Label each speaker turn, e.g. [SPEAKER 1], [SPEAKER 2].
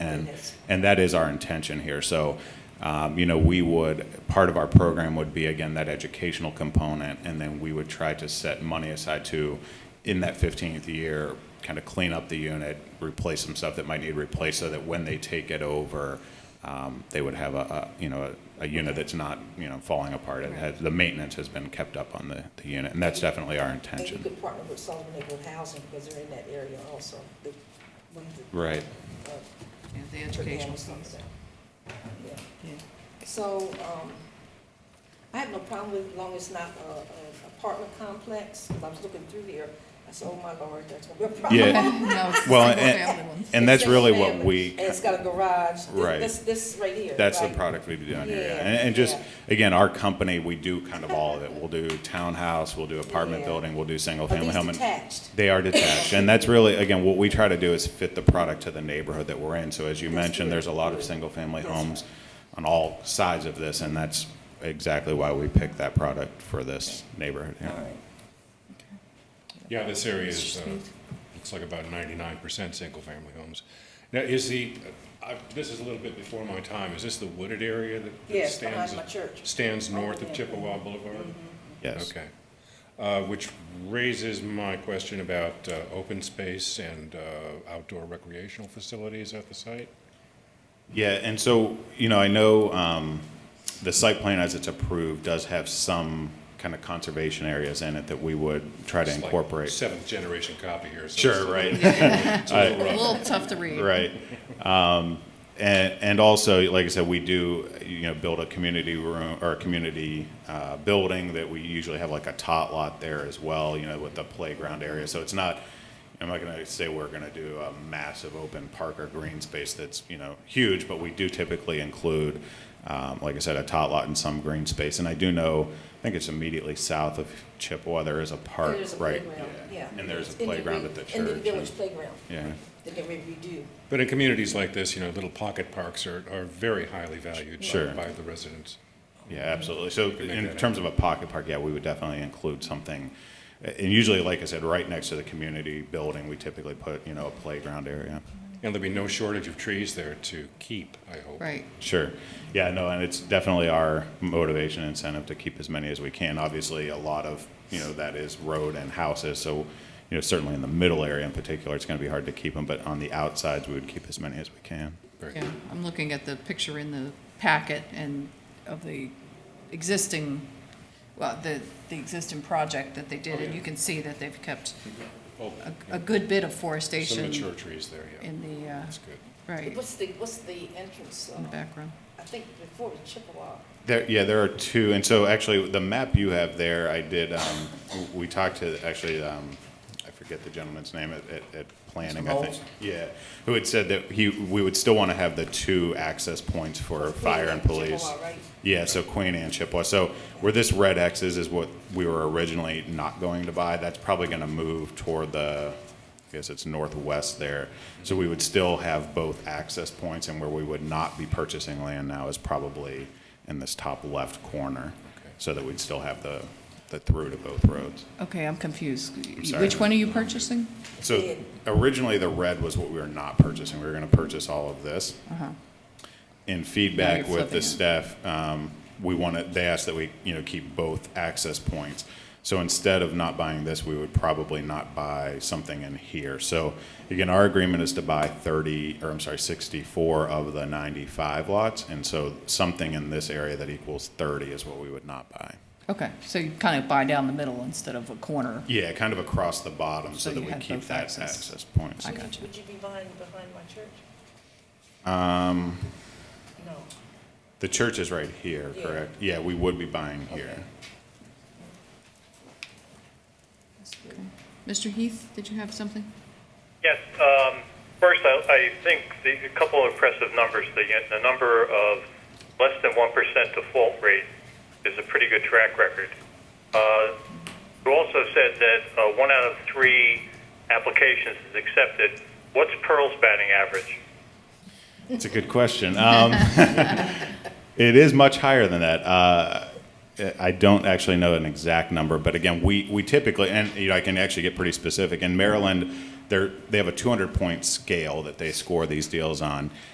[SPEAKER 1] Yes.
[SPEAKER 2] And that is our intention here. So, um, you know, we would, part of our program would be, again, that educational component, and then we would try to set money aside to, in that 15th year, kind of clean up the unit, replace some stuff that might need replaced, so that when they take it over, um, they would have a, a you know, a, a unit that's not, you know, falling apart. It has, the maintenance has been kept up on the, the unit, and that's definitely our
[SPEAKER 1] And you
[SPEAKER 2] intention.
[SPEAKER 1] could partner with Sullivan Neighborhood Housing because they're in that area also. The- one of the-
[SPEAKER 2] Right.
[SPEAKER 1] uh,
[SPEAKER 3] Yeah, the
[SPEAKER 1] Turkana
[SPEAKER 3] educational
[SPEAKER 1] something.
[SPEAKER 3] stuff.
[SPEAKER 1] Yeah.
[SPEAKER 3] Yeah.
[SPEAKER 1] So, um, I have no problem with, as long as it's not a, a apartment complex, because I was looking through there, I said, oh my lord, that's gonna be a problem.
[SPEAKER 2] Yeah.
[SPEAKER 3] No, it's
[SPEAKER 2] Well,
[SPEAKER 3] single
[SPEAKER 2] and-
[SPEAKER 3] family ones.
[SPEAKER 2] And that's
[SPEAKER 1] It's just
[SPEAKER 2] really what
[SPEAKER 1] family,
[SPEAKER 2] we.
[SPEAKER 1] And it's got a garage. This-
[SPEAKER 2] Right.
[SPEAKER 1] This, this right here.
[SPEAKER 2] That's the
[SPEAKER 1] right?
[SPEAKER 2] product we'd be doing here, yeah.
[SPEAKER 1] Yeah,
[SPEAKER 2] And, and just,
[SPEAKER 1] yeah.
[SPEAKER 2] again, our company, we do kind of all of it. We'll do townhouse, we'll do apartment
[SPEAKER 1] Yeah.
[SPEAKER 2] building, we'll do single
[SPEAKER 1] Are
[SPEAKER 2] family
[SPEAKER 1] these
[SPEAKER 2] home. and-
[SPEAKER 1] detached?
[SPEAKER 2] They are detached, and that's really, again, what we try to do is fit the product to the neighborhood that we're in. So as you
[SPEAKER 1] That's
[SPEAKER 2] mentioned,
[SPEAKER 1] good.
[SPEAKER 2] there's a lot of single-family
[SPEAKER 1] That's
[SPEAKER 2] homes on all sides of this, and that's exactly why we picked that product for this neighborhood here.
[SPEAKER 1] All right.
[SPEAKER 4] Yeah, this area is, uh,
[SPEAKER 3] Street.
[SPEAKER 4] it's like about ninety-nine percent single-family homes. Now, is the, uh, I, this is a little bit before my time, is this the wooded area that that
[SPEAKER 1] Yes, behind
[SPEAKER 4] stands?
[SPEAKER 1] my church.
[SPEAKER 4] Stands north
[SPEAKER 1] Yeah.
[SPEAKER 4] of Chippewa Boulevard?
[SPEAKER 2] Yes.
[SPEAKER 4] Okay. Uh, which raises my question about, uh, open space and, uh, outdoor recreational facilities at the site.
[SPEAKER 2] Yeah, and so, you know, I know um, the site plan as it's approved does have some kind of conservation areas in it that we would try to
[SPEAKER 4] It's like
[SPEAKER 2] incorporate.
[SPEAKER 4] Seventh-generation copy here, so.
[SPEAKER 2] Sure, right. I-
[SPEAKER 3] A little tough to read.
[SPEAKER 2] Right. Um, and, and also, like I said, we do, you know, build a community room or a community uh, building that we usually have like a tot lot there as well, you know, with the playground area. So it's not, I'm not going to say we're going to do a massive open park or green space that's, you know, huge, but we do typically include, um, like I said, a tot lot and some green space. And I do know, I think it's immediately south of Chippewa, there is a park,
[SPEAKER 1] There's a
[SPEAKER 2] right?
[SPEAKER 1] playground, yeah.
[SPEAKER 2] And there's a
[SPEAKER 1] In the
[SPEAKER 2] playground
[SPEAKER 1] re-
[SPEAKER 2] at the church.
[SPEAKER 1] In the
[SPEAKER 2] and-
[SPEAKER 1] village playground
[SPEAKER 2] Yeah.
[SPEAKER 1] that they redo.
[SPEAKER 4] But in communities like this, you know, little pocket parks are, are very highly valued by-
[SPEAKER 2] Sure.
[SPEAKER 4] by the residents.
[SPEAKER 2] Yeah, absolutely. So
[SPEAKER 4] can make
[SPEAKER 2] in
[SPEAKER 4] that
[SPEAKER 2] terms of a pocket park, yeah, we would definitely include something. And usually, like I said, right next to the community building, we typically put, you know, a playground area.
[SPEAKER 4] And there'll be no shortage of trees there to keep, I hope.
[SPEAKER 3] Right.
[SPEAKER 2] Sure. Yeah, no, and it's definitely our motivation and incentive to keep as many as we can. Obviously, a lot of, you know, that is road and houses, so, you know, certainly in the middle area in particular, it's going to be hard to keep them, but on the outsides, we would keep as many as we can.
[SPEAKER 4] Very
[SPEAKER 3] Yeah, I'm looking at the picture in the packet and of the existing, well, the, the existing project that they did, and you can see that they've kept
[SPEAKER 4] Oh,
[SPEAKER 3] a, a good bit of
[SPEAKER 4] Some
[SPEAKER 3] forestation
[SPEAKER 4] mature trees there, yeah.
[SPEAKER 3] in the, uh,
[SPEAKER 4] That's good.
[SPEAKER 3] right,
[SPEAKER 1] What's the, what's the entrance?
[SPEAKER 3] in the
[SPEAKER 1] uh,
[SPEAKER 3] background.
[SPEAKER 1] I think before it was Chippewa.
[SPEAKER 2] There, yeah, there are two, and so actually, the map you have there, I did, um, w- we talked to, actually, um, I forget the gentleman's name at, at, at planning, I think.
[SPEAKER 5] Knowles?
[SPEAKER 2] Yeah, who had said that he, we would still wanna have the two access points for fire and police.
[SPEAKER 1] Chippewa, right?
[SPEAKER 2] Yeah, so Queen and Chippewa, so where this red X is, is what we were originally not going to buy, that's probably gonna move toward the, I guess it's northwest there. So we would still have both access points, and where we would not be purchasing land now is probably in this top left corner, so that we'd still have the, the through to both roads.
[SPEAKER 3] Okay, I'm confused.
[SPEAKER 2] sorry.
[SPEAKER 3] Which one are you purchasing?
[SPEAKER 2] So originally, the red was what we were not purchasing, we were gonna purchase all of this. In feedback
[SPEAKER 3] Uh-huh. Now you're
[SPEAKER 2] with
[SPEAKER 3] flipping
[SPEAKER 2] the
[SPEAKER 3] it.
[SPEAKER 2] staff, um, we wanted, they asked that we, you know, keep both access points. So instead of not buying this, we would probably not buy something in here. So again, our agreement is to buy thirty, or I'm sorry, sixty-four of the ninety-five lots. And so something in this area that equals thirty is what we would not buy.
[SPEAKER 3] Okay, so you kind of buy down the middle instead of a corner.
[SPEAKER 2] Yeah, kind of across the bottom so
[SPEAKER 3] So
[SPEAKER 2] that
[SPEAKER 3] you
[SPEAKER 2] we
[SPEAKER 3] had
[SPEAKER 2] keep
[SPEAKER 3] both
[SPEAKER 2] that
[SPEAKER 3] access.
[SPEAKER 2] access point.
[SPEAKER 3] I
[SPEAKER 1] Would you-
[SPEAKER 3] gotcha.
[SPEAKER 1] Would you be buying behind my church?
[SPEAKER 2] Um,
[SPEAKER 1] No.
[SPEAKER 2] The church is right here,
[SPEAKER 1] Yeah.
[SPEAKER 2] correct? Yeah, we would be buying here.
[SPEAKER 1] Okay.
[SPEAKER 3] Mr. Heath, did you have something?
[SPEAKER 6] Yes. um, First, I I think the- a couple of impressive numbers. The the number of less than 1% default rate is a pretty good track record. Uh, You also said that uh, one out of three applications is accepted. What's Pearl's batting average?
[SPEAKER 2] It's a good question. Um, it is much higher than that. Uh, I don't actually know an exact number, but again, we, we typically, and you know, I can actually get pretty specific. In Maryland, they're, they have a 200 point scale that they score these deals on.